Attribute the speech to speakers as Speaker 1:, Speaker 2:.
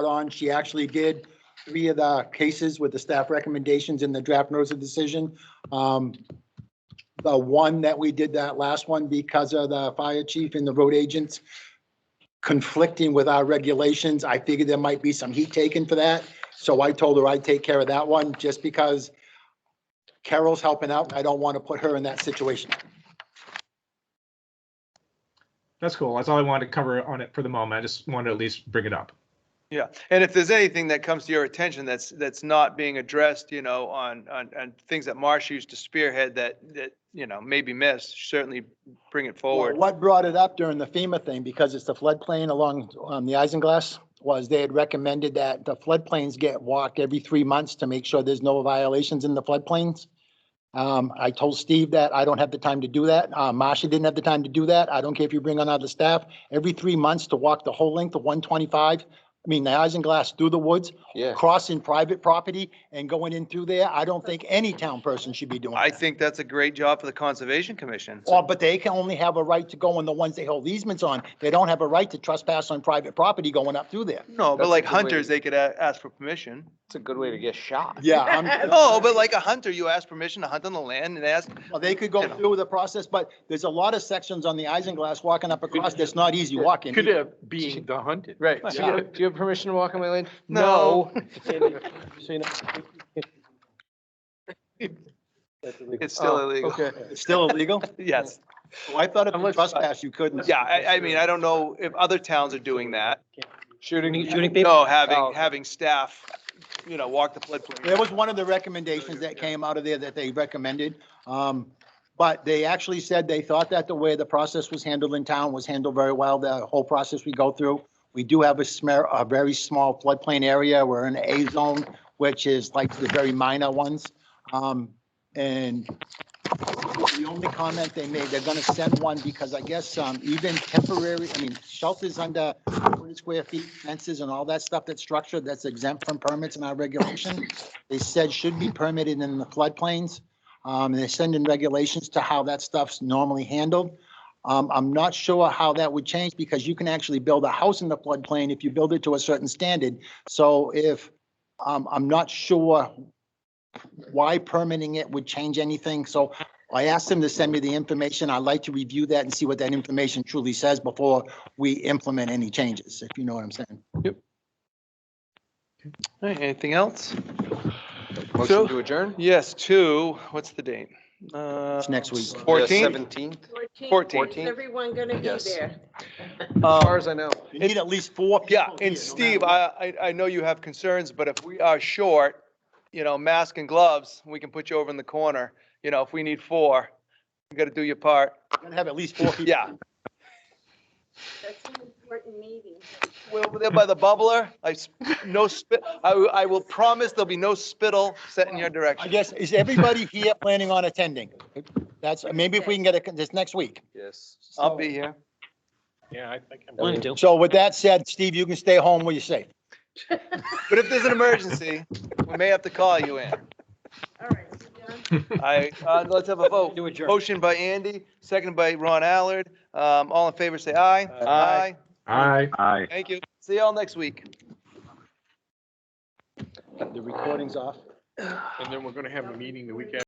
Speaker 1: brought on. She actually did three of the cases with the staff recommendations in the draft notice of decision. Um, The one that we did that last one because of the fire chief and the road agents conflicting with our regulations, I figured there might be some heat taken for that. So I told her I'd take care of that one just because Carol's helping out. and I don't want to put her in that situation.
Speaker 2: That's cool. That's all I wanted to cover on it for the moment. I just wanted to at least bring it up.
Speaker 3: Yeah, and if there's anything that comes to your attention that's, that's not being addressed, you know, on, on, on things that Marsh used to spearhead that, that, you know, may be missed, certainly bring it
Speaker 1: Well,
Speaker 3: forward.
Speaker 1: What brought it up during the FEMA thing, because it's the floodplain along um, the Isinglass, was they had recommended that the floodplains get walked every three months to make sure there's no violations in the floodplains. Um, I told Steve that I don't have the time to do that. Uh, Marcia didn't have the time to do that. I don't care if you bring on other staff. Every three months to walk the whole length of 125, I mean, the Isinglass through the woods,
Speaker 4: Yeah.
Speaker 1: crossing private property and going in through there. I don't think any town person should be doing that.
Speaker 3: I think that's a great job for the Conservation Commission.
Speaker 1: Well, but they can only have a right to go on the ones they hold easements on. They don't have a right to trespass on private property going up through there.
Speaker 3: No,
Speaker 4: That's
Speaker 3: but like
Speaker 4: a good way to-
Speaker 3: hunters, they could a- ask for permission.
Speaker 4: It's a good way to get shot.
Speaker 1: Yeah, I'm,
Speaker 3: No, but like a hunter, you ask permission to hunt on the land and ask,
Speaker 1: well, they could go through the process, but there's a lot of sections on the Isinglass walking up across that's not easy walking.
Speaker 5: Could have been the hunted.
Speaker 4: Right. Do you, do you have permission to walk on my land? No.
Speaker 3: it's still
Speaker 4: Oh,
Speaker 3: illegal.
Speaker 4: Okay.
Speaker 1: It's still illegal?
Speaker 3: Yes.
Speaker 1: Well, I thought if you
Speaker 5: Unless-
Speaker 1: trespass, you couldn't.
Speaker 3: Yeah, I, I mean, I don't know if other towns are doing that.
Speaker 4: Shooting.
Speaker 3: No, having,
Speaker 4: Oh.
Speaker 3: having staff, you know, walk the floodplain.
Speaker 1: There was one of the recommendations that came out of there that they recommended. Um, but they actually said they thought that the way the process was handled in town was handled very well, the whole process we go through. We do have a smear, a very small floodplain area. We're in A zone, which is like the very minor ones. Um, and the only comment they made, they're gonna send one because I guess, um, even temporary, I mean, shelters under 40 square feet, fences and all that stuff that's structured, that's exempt from permits and our regulation. They said should be permitted in the floodplains. Um, and they're sending regulations to how that stuff's normally handled. Um, I'm not sure how that would change because you can actually build a house in the floodplain if you build it to a certain standard. So if, um, I'm not sure why permitting it would change anything. So I asked them to send me the information. I'd like to review that and see what that information truly says before we implement any changes, if you know what I'm saying.
Speaker 3: All right, Anything else?
Speaker 4: Motion to adjourn?
Speaker 3: Yes, two, what's the date? Uh, It's
Speaker 1: next week.
Speaker 3: Fourteen?
Speaker 4: Seventeenth,
Speaker 3: 14th.
Speaker 6: Is everyone going to be
Speaker 4: Yes.
Speaker 6: there?
Speaker 4: as far as I know.
Speaker 1: You need at least four people.
Speaker 3: uh, Yeah,
Speaker 1: here, no
Speaker 3: and Steve,
Speaker 1: matter
Speaker 3: I, I, I know you have concerns, but if we are short, you know, mask and gloves, we can put you over in the corner. You know, if we need four, you gotta do your part.
Speaker 1: what. We're gonna have at least four people.
Speaker 3: Yeah.
Speaker 6: That's an important meeting.
Speaker 3: We're over there by the bubbler. I, s- no spit, I, will- I will promise there'll be no spittle set in your
Speaker 1: I
Speaker 3: direction.
Speaker 1: guess, is everybody here planning on attending? That's, maybe if we can get it this next week.
Speaker 4: Yes.
Speaker 3: I'll be here.
Speaker 5: Yeah, I think I'm.
Speaker 4: Willing
Speaker 1: So with that said, Steve, you can stay home where you're safe.
Speaker 3: But if there's an emergency, we may have to call you in.
Speaker 6: All right, so John,
Speaker 3: I, uh, let's have a vote. Motion by Andy, second by Ron Allard. Um, all in favor, say aye.
Speaker 4: Aye.
Speaker 2: Aye.
Speaker 3: Aye. Thank you. See y'all next week.
Speaker 1: The recording's off.
Speaker 5: And then we're gonna have a meeting the week after.